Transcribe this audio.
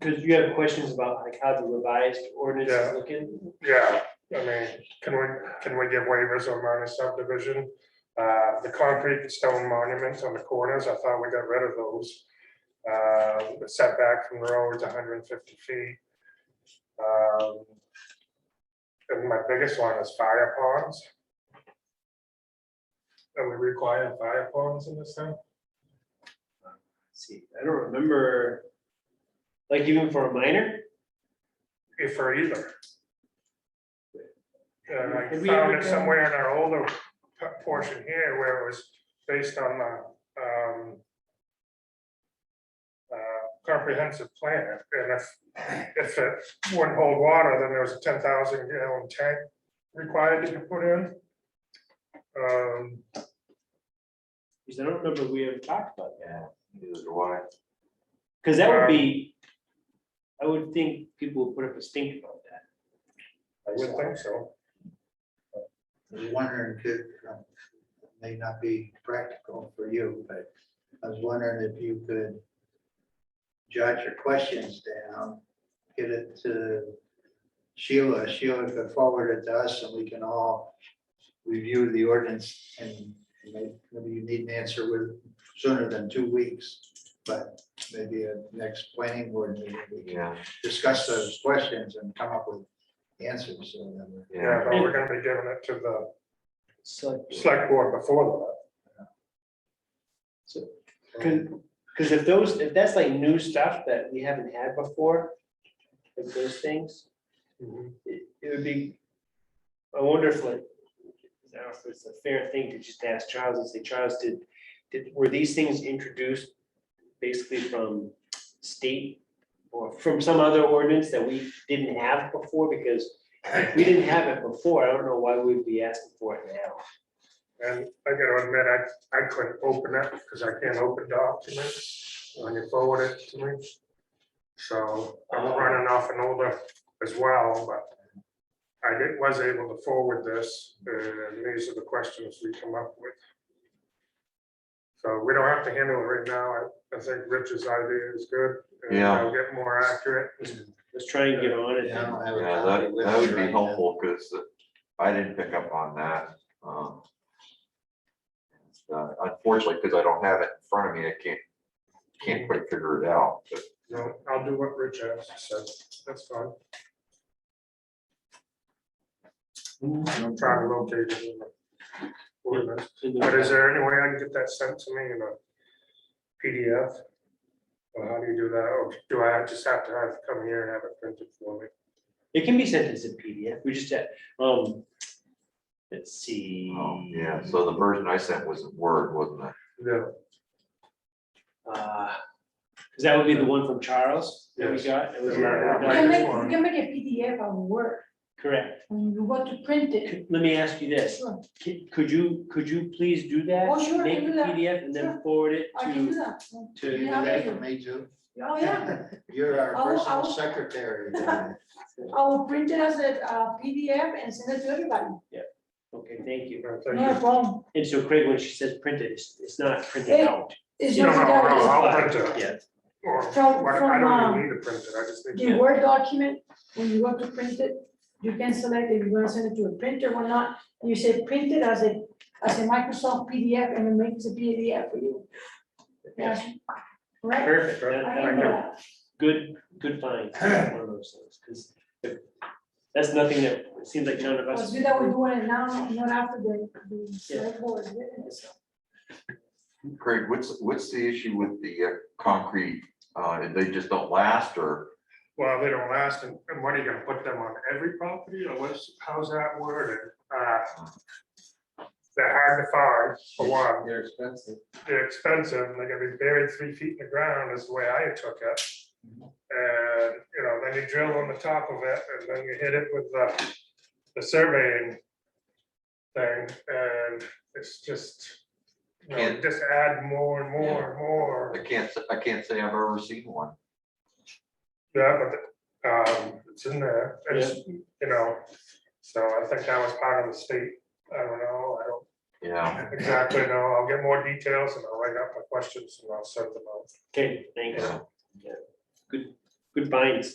Because you have questions about like how the revised ordinance Yeah. is looking. Yeah, I mean, can we, can we give waivers on minor subdivision? Uh, the concrete stone monuments on the corners, I thought we got rid of those. Uh, the setback from the road is hundred and fifty feet. Um, And my biggest one is fire ponds. And we require fire ponds in this thing? See, I don't remember, like even for a minor, If for either. And I Have we found ever it done- somewhere in our older p- portion here where it was based on the, um, uh, comprehensive plan, and if, if it wouldn't hold water, then there was a ten thousand gallon tank required to be put in. Um, because I don't remember we ever talked about that. Neither do I. Because that would be, I would think people would put up a stink about that. I would think so, I was wondering if, it um, may not be practical for you, but I was wondering if you could jot your questions down, get it to Sheila, Sheila could forward it to us and we can all review the ordinance and may- maybe you need an answer with sooner than two weeks, but maybe a next planning board meeting, we can Yeah, discuss those questions and come up with answers. so then we- yeah, yeah. but we're gonna be giving it to the So, select board before because if those, if that's like new stuff that we haven't had before, like those things, that. it, it would be, I wonder if like, I don't know if it's a fair thing to just ask Charles and say, Charles, did, did, were these things introduced basically from state or from some other ordinance that we didn't have before? Because if we didn't have it before, I don't know why we'd be asking for it now. And I gotta admit, I, I couldn't open it because I can't open documents when you forward it to me. So I'm Oh. running off an older as well, but I did, was able to forward this, and these are the questions we come up with. So we don't have to handle it right now. I, I think Rich's idea is good. and Yeah. I'll get more accurate. Let's try and get on it. Yeah, I don't have a Yeah, copy that, with that us would right be now. helpful, because I didn't pick up on that. um, uh, Unfortunately, because I don't have it in front of me, I can't, can't quite figure it out, but No, I'll do what Rich has said. That's fine. I'm trying to locate it. in the ordinance. But is there any way I can get that sent to me in a PDF? Or how do you do that? Or do I just have to have it come here and have it printed for me? It can be sent as a PDF. We just, had, um, let's see. um, yeah, so the version I sent was in Word, wasn't it? No. Uh, Cause that would be the one from Charles that we Yes. got. It was Yeah. not- Right, You can this make, one. you can make a PDF of Word, Correct. when you want to print it. Could- Let me ask you this. Sure, Could- Could you, could you please do that? Oh, sure, I Make can a do that. PDF and then Sure. forward it I can do to, that. to. You Yeah, have that it. for me too. Oh, yeah, You're I'll- our I'll- personal secretary. Dana. I will print it as a uh, PDF and send it to everybody, Okay, thank you. No, thank no you. problem. And so Craig, when she says printed, it's, it's not printed Hey, out. It's No, just no, no, that I'll print it. Yeah. Or, From- what- I don't from, even need to print it. I just need the to. Word document, when you want to print it, you can select if you want to send it to a printer or not. You say print it as a, as a Microsoft PDF and it makes a PDF for you. Yeah, right? Perfect. That- I that- can do that. Good, good find. One of those things, 'cause if- That's nothing that, it seems like none of us. It's good that we're doing it now, not after the, the select board. is doing it. Craig, what's, what's the issue with the uh, concrete? Uh, They just don't last, or, Well, they don't last, and and what are you gonna put them on every property, or what's, how's that worded? Uh, They're hard to find, for one, They're expensive. they're expensive, and they're gonna be buried three feet in the ground, is the way I took it. And, you know, then you drill on the top of it, and then you hit it with the, the surveying thing, and it's just, you know, Can't- just add more and more and more. I can't, s- I can't say I've ever seen one. Yeah, but, um, it's in there, it's, you know, so I think that was part of the state, I don't know, I don't Yeah, exactly know, I'll get more details and I'll write up my questions and I'll send them out. Okay, thanks. Yeah. Yeah, Good, good finds.